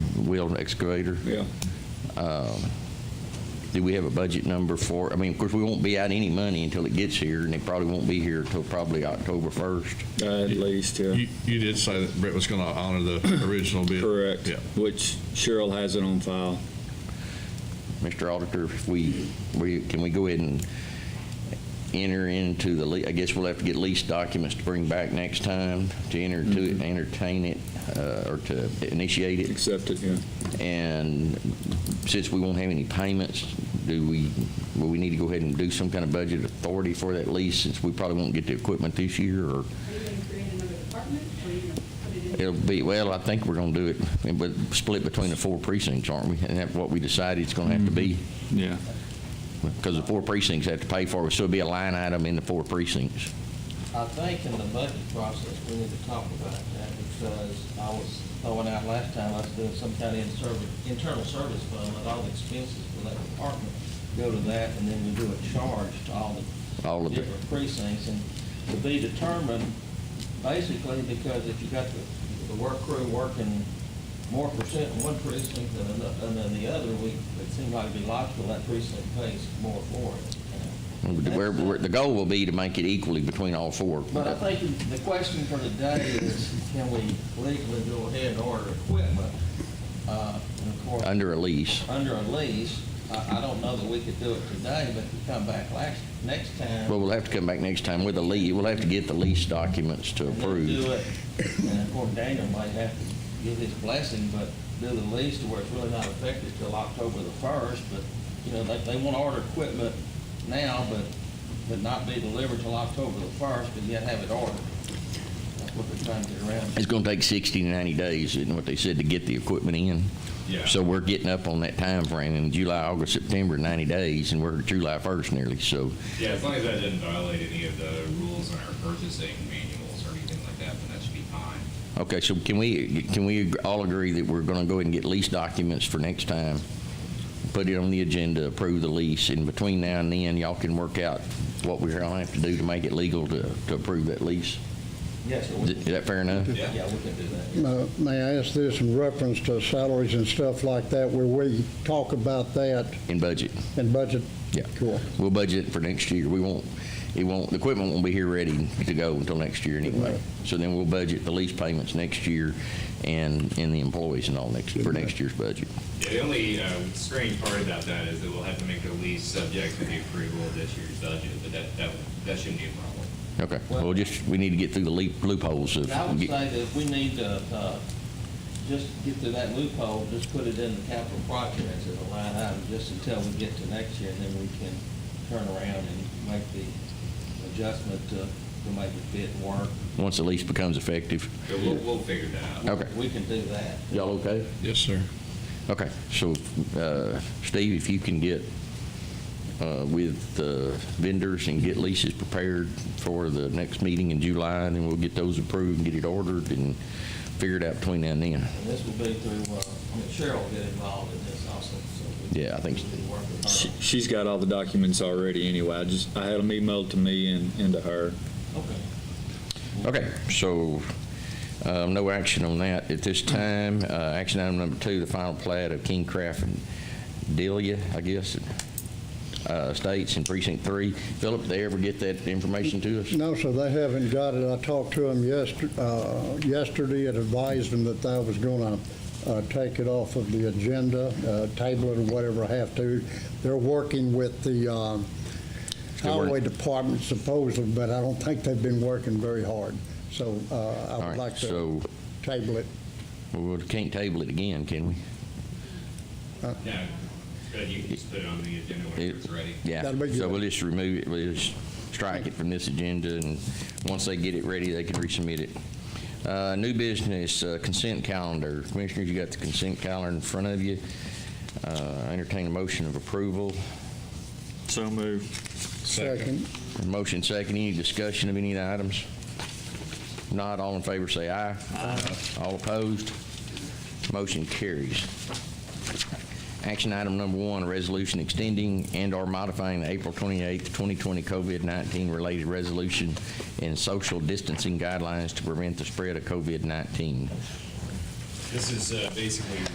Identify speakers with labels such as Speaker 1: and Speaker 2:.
Speaker 1: wheel excavator. Um,
Speaker 2: Yeah.
Speaker 1: Do we have a budget number for, I mean, of course, we won't be out any money until it gets here, and it probably won't be here till probably October 1st.
Speaker 2: At least, yeah.
Speaker 3: You, you did say that Brett was going to honor the original bid.
Speaker 2: Correct.
Speaker 3: Yeah.
Speaker 2: Which Cheryl has it on file.
Speaker 1: Mr. Auditor, if we, we, can we go ahead and enter into the, le- I guess we'll have to get lease documents to bring back next time to enter to, entertain it, uh, or to initiate it.
Speaker 2: Accept it, yeah.
Speaker 1: And since we won't have any payments, do we, will we need to go ahead and do some kind of budget authority for that lease since we probably won't get the equipment this year or
Speaker 4: Are you going to create another department, or are you going to put it in?
Speaker 1: it'll be, well, I think we're gonna do it, and but split between the four precincts, aren't we? And that's what we decided it's gonna have to be,
Speaker 2: Yeah.
Speaker 1: because the four precincts have to pay for it, so it'll be a line item in the four precincts.
Speaker 5: I think in the budget process, we need to talk about that because I was throwing out last time, I was doing some kind of inserv- internal service fund, let all the expenses for that department go to that, and then we do a charge to all the
Speaker 1: All of the-
Speaker 5: different precincts, and to be determined, basically, because if you got the, the work crew working more percent in one precinct than ano- than in the other, we, it seemed like it'd be logical that precinct pays more for it. you know.
Speaker 1: And where- where- The goal will be to make it equally between all four.
Speaker 5: But I think the question for today is, can we legally go ahead and order equipment, uh, and of course,
Speaker 1: Under a lease.
Speaker 5: under a lease? I, I don't know that we could do it today, but if we come back last, next time.
Speaker 1: Well, we'll have to come back next time with a lease, we'll have to get the lease documents to
Speaker 5: and then
Speaker 1: approve.
Speaker 5: Do it, and of course, Daniel might have to give his blessing, but do the lease to where it's really not effective till October the first, but, you know, they, they want to order equipment now, but, but not be delivered till October the first, but yet have it ordered. That's what they're trying to get around.
Speaker 1: It's going to take 60 to 90 days, isn't what they said, to get the equipment in?
Speaker 3: Yeah.
Speaker 1: So we're getting up on that time frame in July, August, September, 90 days, and we're July 1st nearly, so
Speaker 6: Yeah, as long as that didn't violate any of the rules in our purchasing manuals or anything like that, then that should be fine.
Speaker 1: Okay, so can we, can we all agree that we're going to go ahead and get lease documents for next time? Put it on the agenda, approve the lease, and between now and then, y'all can work out what we're going to have to do to make it legal to, to approve that lease?
Speaker 5: Yes, sir.
Speaker 1: Is it- is that fair enough?
Speaker 6: Yeah.
Speaker 5: Yeah, we can do that.
Speaker 7: Uh, May I ask this in reference to salaries and stuff like that, where we talk about that
Speaker 1: In budget?
Speaker 7: in budget?
Speaker 1: Yeah.
Speaker 7: Cool.
Speaker 1: We'll budget it for next year. We won't, it won't, the equipment won't be here ready to go until next year anyway. So then we'll budget the lease payments next year and, and the employees and all next, for next year's budget.
Speaker 6: The only uh, strange part about that is that we'll have to make the lease subject to the approval of this year's budget, but that, that, that shouldn't be a problem.
Speaker 1: Okay, well, just, we need to get through the leap- loopholes of.
Speaker 5: I would say that we need to, uh, just get through that loophole, just put it in the capital projects as a line item, just until we get to next year, and then we can turn around and make the adjustment to, to make it fit and work.
Speaker 1: Once the lease becomes effective.
Speaker 6: So we'll, we'll figure that out.
Speaker 1: Okay.
Speaker 5: We can do that.
Speaker 1: Y'all okay?
Speaker 3: Yes, sir.
Speaker 1: Okay, so, uh, Steve, if you can get, uh, with the vendors and get leases prepared for the next meeting in July, and then we'll get those approved and get it ordered and figure it out between now and then.
Speaker 5: And this will be through, uh, I mean, Cheryl will get involved in this also, so. we-
Speaker 1: Yeah, I think so.
Speaker 5: we can work with her.
Speaker 2: She- She's got all the documents already anyway. I just, I had them emailed to me and, and to her.
Speaker 5: Okay.
Speaker 1: Okay, so, uh, no action on that at this time. Uh, Action item number two, the final plat of King Craft and Delia, I guess, uh, Estates in Precinct Three. Philip, they ever get that information to us?
Speaker 7: No, sir, they haven't got it. I talked to them yesterday, yesterday and advised them that I was going to take it off of the agenda, uh, table it or whatever I have to. They're working with the um,
Speaker 1: Good work.
Speaker 7: highway department supposedly, but I don't think they've been working very hard. So uh,
Speaker 1: All
Speaker 7: I
Speaker 1: right,
Speaker 7: would like to
Speaker 1: So,
Speaker 7: table it.
Speaker 1: well, we can't table it again, can we?
Speaker 6: Yeah, Good, you can just put it on the agenda whenever it's ready.
Speaker 1: Yeah,
Speaker 7: That'll be
Speaker 1: so
Speaker 7: good.
Speaker 1: we'll just remove it, we'll just strike it from this agenda, and once they get it ready, they can resubmit it. Uh, New business, uh, consent calendar. Commissioners, you got the consent calendar in front of you. Uh, Entertain a motion of approval.
Speaker 2: So moved.
Speaker 7: Second.
Speaker 1: Motion second, any discussion of any of the items? Not all in favor, say aye. Aye. All opposed? Motion carries. Action item number one, a resolution extending and/or modifying the April 28, 2020 COVID-19 related resolution and social distancing guidelines to prevent the spread of COVID-19.
Speaker 6: This is uh, basically